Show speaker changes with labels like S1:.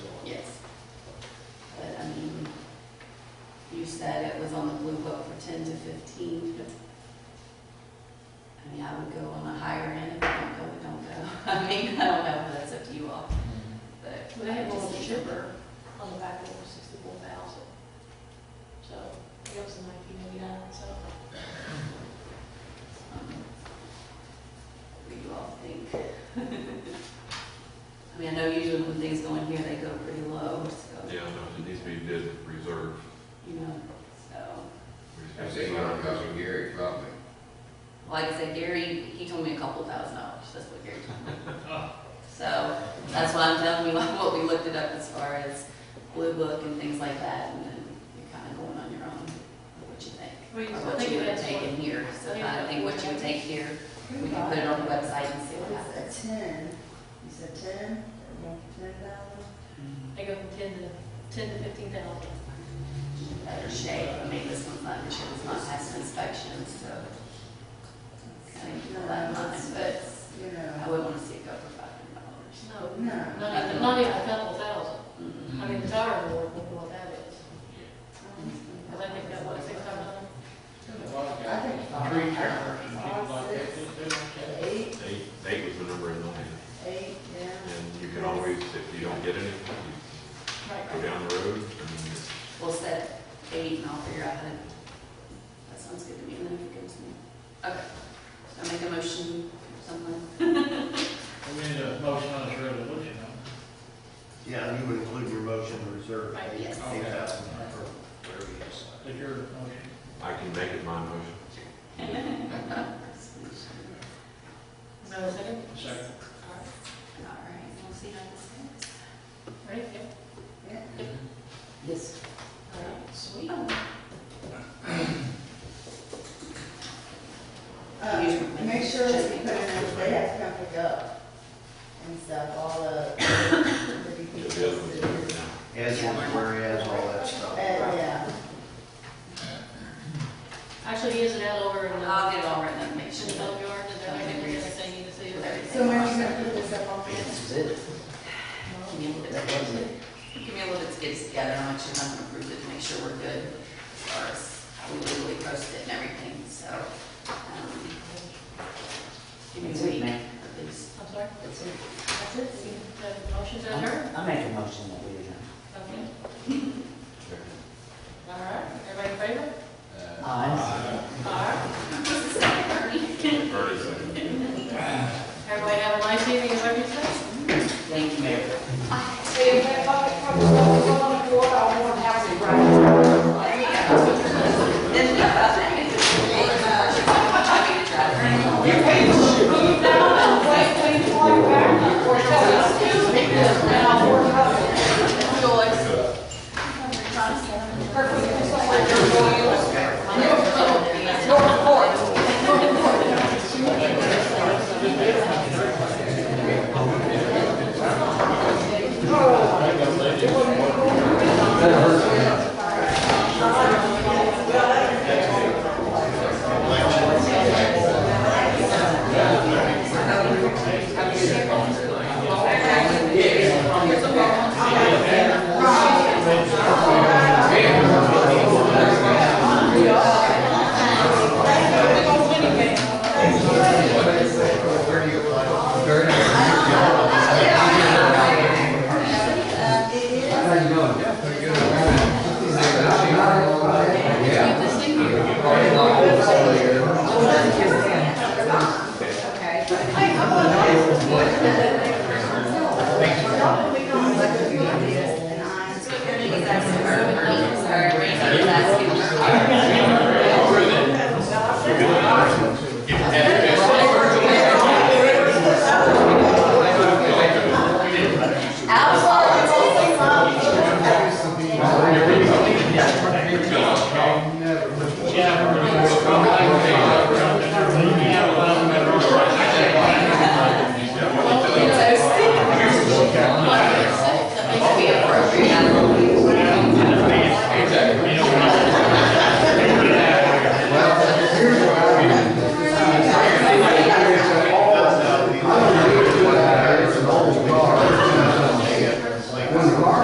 S1: December on the back end was sixty-four thousand. So that was in nineteen eighty-nine, so. um, What do you all think? I mean, I know usually when things go in here, they go pretty low, so,
S2: Yeah, no, it needs to be bid reserve.
S1: you know, so.
S2: We
S3: I
S2: just-
S3: think I'm talking Gary probably.
S1: Like I said, Gary, he told me a couple thousand dollars, that's what Gary told me. So, that's why I'm telling you, like, what we looked it up as far as Blue Book and things like that, and then you're kind of going on your own, what you think.
S4: Well, you
S1: Or
S4: still
S1: what
S4: think
S1: you
S4: it
S1: would
S4: is
S1: take
S4: what-
S1: in here, so
S4: Yeah.
S1: I think what you would take here, we can put it on the website and see
S5: What
S1: what
S5: is that,
S1: happens.
S5: ten? You said ten, one for ten thousand?
S4: They go from ten to, ten to fifteen thousand.
S1: Better shape, I mean, this one's not, this one's not past inspection, so. Kind of keep all that in mind, but I
S5: You know,
S1: wouldn't want to see it go for five hundred dollars. Mm-hmm.
S4: No,
S5: no.
S4: not even, not even a couple thousand. I mean, the tire board, look what that is. Cause I think that what, six thousand?
S5: I think five,
S6: Tree trimmers and people
S5: five,
S6: like that,
S5: six,
S6: just do it.
S5: eight,
S2: Eight, eight was the number in mind,
S5: eight, yeah.
S2: and you can always, if you don't get any, you go down the road, and
S1: We'll set eight and I'll figure out how to, that sounds good to me, and then if it gives me, okay. So I make a motion, someone,
S6: We need a motion on this resolution, huh?
S7: Yeah, you would include your motion to reserve
S1: Right,
S7: eight
S1: yes.
S7: thousand for whatever you decide.
S6: Did your motion?
S2: I can make it my motion.
S4: No, second?
S6: Second.
S4: All
S1: all right, we'll see how this
S4: right. Ready? Yep.
S5: Yeah.
S1: goes. Yes.
S4: All right.
S1: Sweet.
S5: Uh, make sure that you put in, that they have to come pick up and stuff, all the, the
S2: Yeah, the other one's doing it
S5: details.
S2: now.
S7: As is,
S1: Yeah.
S7: whereas, all that
S5: Uh,
S7: stuff.
S5: yeah.
S4: Actually, he is it out over in the,
S1: I'll
S4: in
S1: get it all written up, make sure.
S4: the
S1: that-
S4: boatyard, and they're making everything you need to see.
S5: So when are you gonna put this up on the?
S1: Give me a little bit Give me a little bit to get it together, I'm actually not gonna approve it, to make sure we're good as far as how we legally post it and everything, so. um, Give me a week, at least.
S4: I'm sorry?
S8: That's it.
S4: That's it? uh, The motion's
S8: I'm-
S4: adjourned?
S8: I make a motion that we adjourn.
S4: Okay. All right. Everybody in favor?
S8: Uh, Aye.
S4: All right.
S2: Ernest, I-
S4: Everybody have a nice evening, is what you said?
S8: Thank you, Mayor.
S6: I think I'm ready.
S1: Oh,